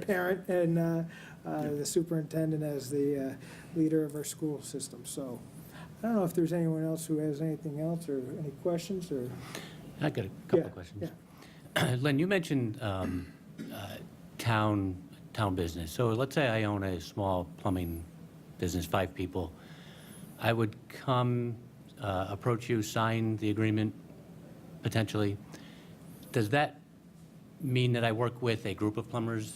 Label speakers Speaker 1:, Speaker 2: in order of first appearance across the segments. Speaker 1: parent and uh, uh, the superintendent as the uh, leader of our school system. So I don't know if there's anyone else who has anything else or any questions or.
Speaker 2: I got a couple
Speaker 1: Yeah,
Speaker 2: of questions. Len, you mentioned um, uh, town, town business. So let's say I own a small plumbing business, five people. I would come, uh, approach you, sign the agreement potentially. Does that mean that I work with a group of plumbers?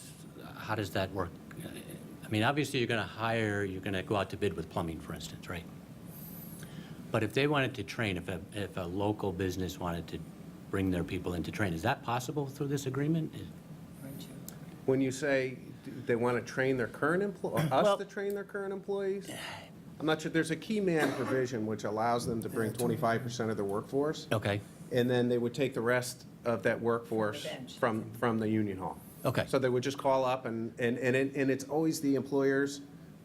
Speaker 2: How does that work? I mean, obviously, you're going to hire, you're going to go out to bid with plumbing, for instance, right? But if they wanted to train, if a, if a local business wanted to bring their people in to train, is that possible through this agreement?
Speaker 3: When you say d- they want to train their current employ, us
Speaker 2: Well-
Speaker 3: to train their current employees? I'm not sure, there's a key man provision which allows them to bring 25% of their workforce,
Speaker 2: Okay,
Speaker 3: and then they would take the rest of that workforce
Speaker 4: bench.
Speaker 3: from, from the union hall.
Speaker 2: okay.
Speaker 3: So they would just call up, and, and, and it- and it's always the employer's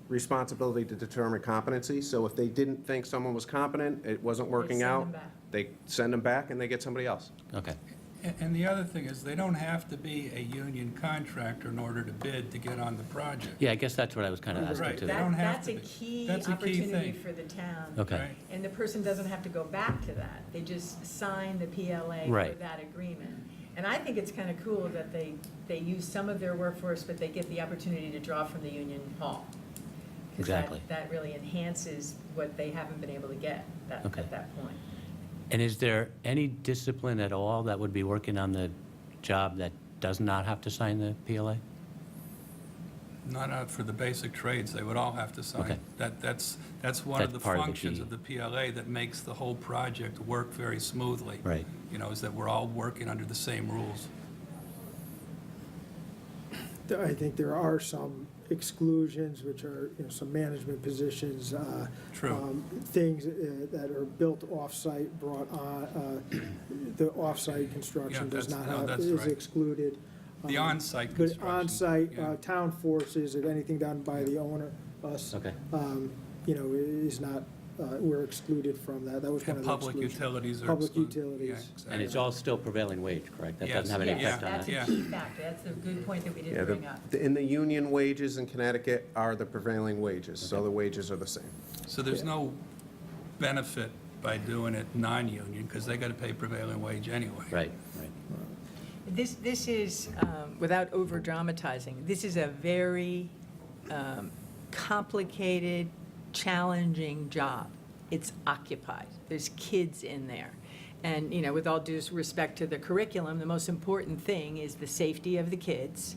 Speaker 3: responsibility to determine competency. So if they didn't think someone was competent, it wasn't working
Speaker 4: send them
Speaker 3: out,
Speaker 4: back.
Speaker 3: they send them back, and they get somebody else.
Speaker 2: Okay,
Speaker 5: And- And the other thing is, they don't have to be a union contractor in order to bid to get on the project.
Speaker 2: yeah, I guess that's what I was kind of asking
Speaker 5: Right.
Speaker 2: too.
Speaker 5: They don't
Speaker 4: That,
Speaker 5: have
Speaker 4: that's
Speaker 5: to
Speaker 4: a
Speaker 5: be.
Speaker 4: key
Speaker 5: That's a key
Speaker 4: opportunity
Speaker 5: thing.
Speaker 4: for the town.
Speaker 2: Okay,
Speaker 5: Right.
Speaker 4: And the person doesn't have to go back to that. They just sign the PLA for
Speaker 2: Right.
Speaker 4: that agreement. And I think it's kind of cool that they, they use some of their workforce, but they get the opportunity to draw from the union hall. 'Cause that-
Speaker 2: Exactly.
Speaker 4: That really enhances what they haven't been able to get that-
Speaker 2: Okay.
Speaker 4: at that point.
Speaker 2: and is there any discipline at all that would be working on the job that does not have to sign the PLA?
Speaker 5: Not out for the basic trades, they would all have to
Speaker 2: Okay.
Speaker 5: sign. That, that's, that's one of
Speaker 2: That's
Speaker 5: the
Speaker 2: part of the
Speaker 5: functions
Speaker 2: key.
Speaker 5: of the PLA that makes the whole project work very smoothly.
Speaker 2: Right.
Speaker 5: You know, is that we're all working under the same rules.
Speaker 1: I think there are some exclusions, which are, you know, some management positions. uh,
Speaker 5: True.
Speaker 1: um, Things uh, that are built off-site, brought on, uh, the off-site construction
Speaker 5: Yeah,
Speaker 1: does
Speaker 5: that's-
Speaker 1: not
Speaker 5: no,
Speaker 1: have,
Speaker 5: that's
Speaker 1: is
Speaker 5: right.
Speaker 1: excluded.
Speaker 5: The
Speaker 1: Um,
Speaker 5: on-site
Speaker 1: But
Speaker 5: construction,
Speaker 1: on-site,
Speaker 5: yeah.
Speaker 1: uh, town forces, if anything done by the owner, us.
Speaker 2: Okay.
Speaker 1: um, You know, is not, uh, we're excluded from that. That was one of
Speaker 5: And
Speaker 1: the
Speaker 5: public
Speaker 1: exclusions.
Speaker 5: utilities are.
Speaker 1: Public
Speaker 5: excluded.
Speaker 1: utilities.
Speaker 5: Yeah,
Speaker 2: And it's
Speaker 5: exactly.
Speaker 2: all still prevailing wage, correct? That
Speaker 5: Yes.
Speaker 2: doesn't have any
Speaker 5: Yeah.
Speaker 4: Yes,
Speaker 2: effect on
Speaker 4: that's
Speaker 2: that?
Speaker 4: a
Speaker 5: that.
Speaker 4: key factor. That's a good point that we
Speaker 3: Yeah,
Speaker 4: didn't
Speaker 3: the-
Speaker 4: bring up.
Speaker 3: the- And the union wages in Connecticut are the prevailing wages, so the wages are the same.
Speaker 5: So there's no benefit by doing it non-union, because they got to pay prevailing wage anyway.
Speaker 2: Right, right.
Speaker 4: This, this is, um, without over-dramatizing, this is a very um, complicated, challenging job. It's occupied. There's kids in there. And, you know, with all due respect to the curriculum, the most important thing is the safety of the kids,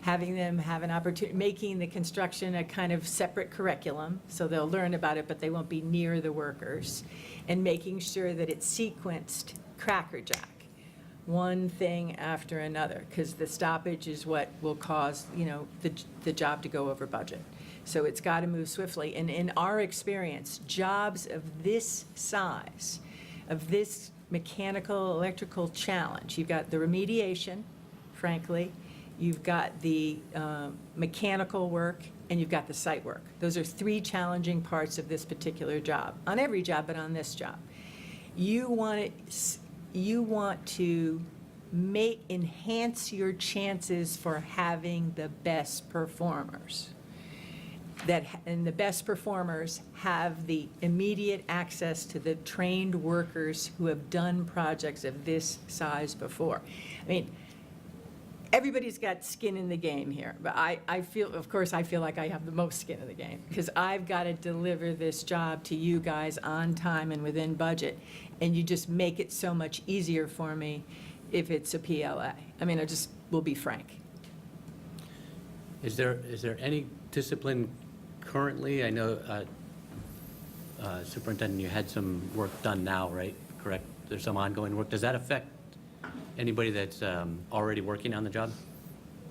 Speaker 4: having them have an opportunity, making the construction a kind of separate curriculum, so they'll learn about it, but they won't be near the workers, and making sure that it's sequenced crackerjack one thing after another, because the stoppage is what will cause, you know, the, the job to go over budget. So it's got to move swiftly. And in our experience, jobs of this size, of this mechanical, electrical challenge, you've got the remediation, frankly, you've got the um, mechanical work, and you've got the site work. Those are three challenging parts of this particular job, on every job, but on this job. You want it, s- you want to make, enhance your chances for having the best performers. That, ha- and the best performers have the immediate access to the trained workers who have done projects of this size before. I mean, everybody's got skin in the game here, but I, I feel, of course, I feel like I have the most skin in the game, because I've got to deliver this job to you guys on time and within budget, and you just make it so much easier for me if it's a PLA. I mean, I just, we'll be frank.
Speaker 2: Is there, is there any discipline currently? I know uh, uh, Superintendent, you had some work done now, right? Correct? There's some ongoing work. Does that affect anybody that's um, already working on the job?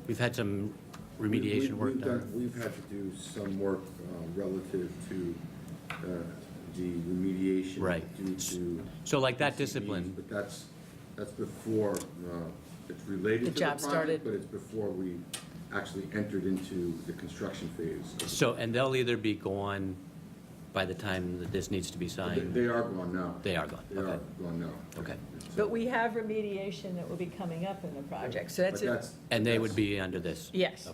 Speaker 2: We've had some remediation
Speaker 6: We-
Speaker 2: work
Speaker 6: we've
Speaker 2: done.
Speaker 6: We've had to do some work uh, relative to uh, the remediation.
Speaker 2: Right.
Speaker 6: Due to.
Speaker 2: So like that
Speaker 6: PCBs,
Speaker 2: discipline-
Speaker 6: But that's, that's before, uh, it's related
Speaker 4: The
Speaker 6: to the
Speaker 4: job started.
Speaker 6: project, but it's before we actually entered into the construction phase. of
Speaker 2: So, and they'll either be gone by the time that this needs to be
Speaker 6: the- They
Speaker 2: signed?
Speaker 6: they are gone now.
Speaker 2: They are gone,
Speaker 6: They are
Speaker 2: okay.
Speaker 6: gone now.
Speaker 2: Okay.
Speaker 6: It's, uh,
Speaker 4: But we have remediation that will be coming up in the project, so
Speaker 6: but
Speaker 4: that's a,
Speaker 6: that's-
Speaker 2: And they
Speaker 6: that's-
Speaker 2: would be under this?
Speaker 4: yes.